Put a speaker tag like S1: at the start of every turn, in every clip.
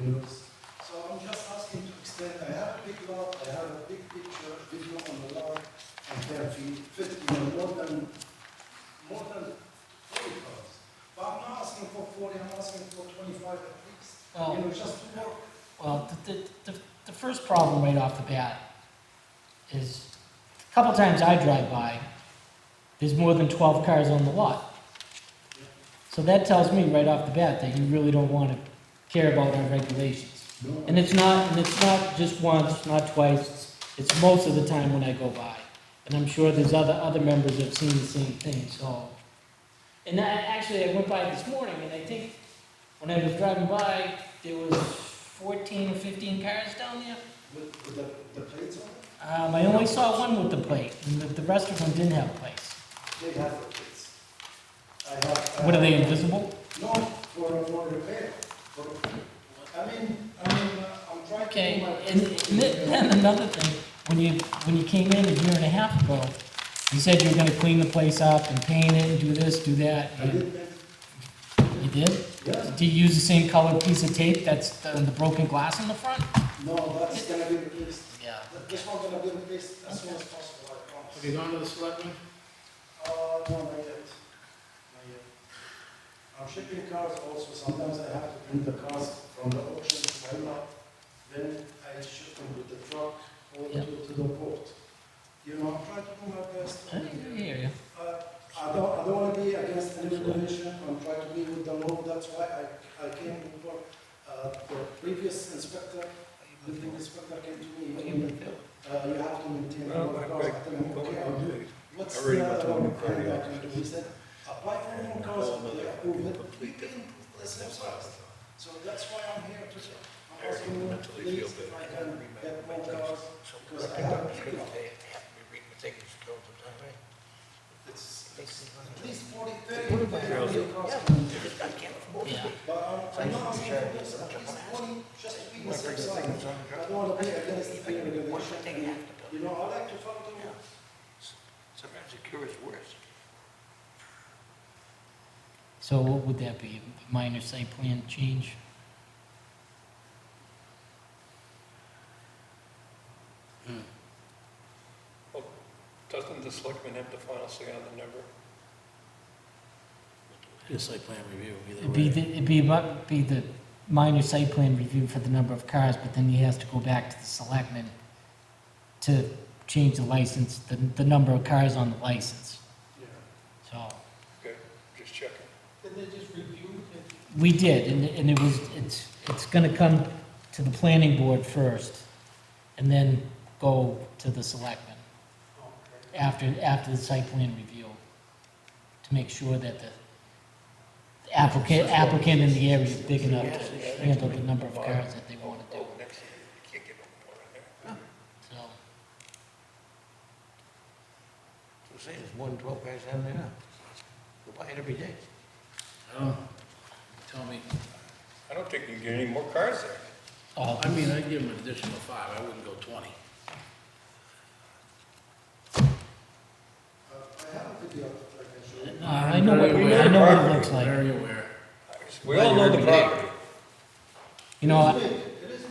S1: windows. So I'm just asking to extend, I have a big lot, I have a big picture, video on the lot, and there feet, fifty, or more than, more than forty cars. But I'm not asking for forty, I'm asking for twenty-five at least, you
S2: Well,
S1: know, just to work.
S2: well, the, the, the- the first problem right off the bat is, a couple times I drive by, there's more than twelve cars on the lot. So that tells me right off the bat that you really don't wanna care about our regulations.
S1: No,
S2: And it's not, and it's not just once, not twice, it's- it's most of the time when I go by. And I'm sure there's other, other members that have seen the same thing, so. And I, actually, I went by this morning, and I think when I was driving by, there was fourteen or fifteen cars down there.
S1: With, with the, the plates on it,
S2: Um, I only saw one with the plate, and the, the rest of them didn't have plates.
S1: they have the plates. I have. I
S2: What, are
S1: have-
S2: they invisible?
S1: No, for, for repair, for, I mean, I mean, uh, I'm trying to. do
S2: Okay,
S1: my-
S2: and and then another thing, when you, when you came in a year and a half ago, you said you were gonna clean the place up and paint it and do this, do that.
S1: I did that,
S2: You did?
S1: yeah,
S2: Do you use the same colored piece of tape that's the, the broken glass in the front?
S1: no, that's gonna be replaced,
S2: Yeah.
S1: That- this one's gonna be replaced as soon as possible, I
S3: Have
S1: promise.
S3: you gone to the selectmen?
S1: Uh, no, not yet, not yet. I'm shipping cars also, sometimes I have to bring the cars from the auction to my lot, then I ship them with the truck or
S2: Yeah.
S1: to, to the port. You know, I'm trying to do my best.
S2: I hear you.
S1: Uh, I don't, I don't want to be against any regulation, I'm trying to be with the law, that's why I, I came before, uh, the previous inspector, building inspector came to me, he told me, uh, you have to maintain
S4: Well,
S1: our
S4: I-
S1: cars,
S4: I-
S1: I tell him,
S4: Well,
S1: okay,
S4: I
S1: I'll do it.
S4: do.
S1: What's uh,
S4: I
S1: the
S4: already got the
S1: wrong
S4: one
S1: thing I
S4: prior.
S1: can do, he said, apply for more cars, they approve it, we can, let's have cars. So that's why I'm here to, I'm asking you, please, if I can get more cars, because I have, it's, it's at least forty, thirty, thirty cars.
S2: Yeah.
S1: But I'm, I'm not asking for this, I'm just wanting, just to be on the safe side. I don't want to be against the regulation. and, You know, I like to follow the rules.
S4: Sometimes the cure is worse.
S2: So what would that be, a minor site plan change?
S5: Doesn't the selectman have the final say on the number?
S3: Yes, site plan review, either
S2: It'd be, the-
S3: way.
S2: it'd be, about- be the minor site plan review for the number of cars, but then he has to go back to the selectmen to change the license, the, the number of cars on the license,
S1: Yeah.
S2: so.
S5: Okay, just checking.
S2: We did, and, and it was, it's, it's gonna come to the planning board first, and then go to the selectmen after, after the site plan review, to make sure that the applicant, applicant in the area is big enough to handle the number of cars that they wanna do,
S5: Oh, next, you can't get no more in there.
S2: so.
S4: So say there's more than twelve guys having it now. Go buy it every day.
S3: I don't, tell me,
S5: I don't think you can get any more cars there.
S2: Oh,
S3: I mean, I'd give them an additional five, I wouldn't go twenty.
S1: Uh, I have a video that I can show you.
S2: no, I know what, I know what it looks like,
S3: Very aware.
S5: We all know the property.
S2: you know, I-
S1: It is big, it is big.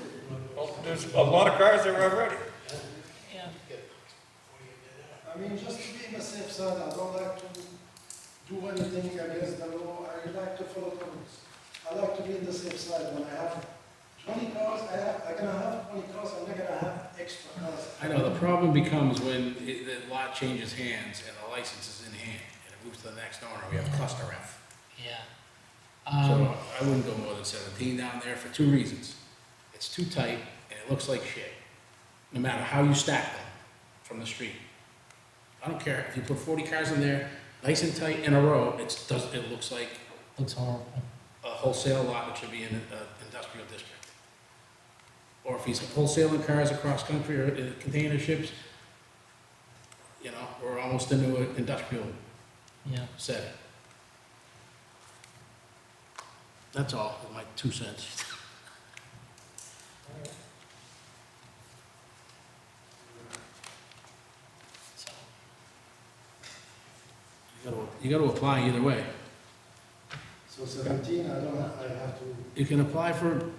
S5: Well, There's a lot of cars there already.
S1: I mean, just to be on the safe side, I don't like to do anything against the law, I like to follow the rules. I like to be on the safe side when I have twenty cars, I have, I'm gonna have twenty cars, I'm not gonna have extra cars.
S3: I know, the problem becomes when it- the lot changes hands and the license is in hand, and it moves to the next owner, we have cluster F.
S2: yeah. Um,
S3: So I wouldn't go more than seventeen down there for two reasons. It's too tight, and it looks like shit, no matter how you stack them from the street. I don't care, if you put forty cars in there, nice and tight in a row, it's, does, it looks like
S2: looks horrible.
S3: a wholesale lot that should be in an uh, industrial district. Or if he's wholesaling cars across country or in container ships, you know, we're almost into an industrial
S2: Yeah,
S3: setting. That's all, my two cents.
S2: so,
S3: You gotta- You gotta apply either way.
S1: So seventeen, I don't, have- I have to
S3: You can apply for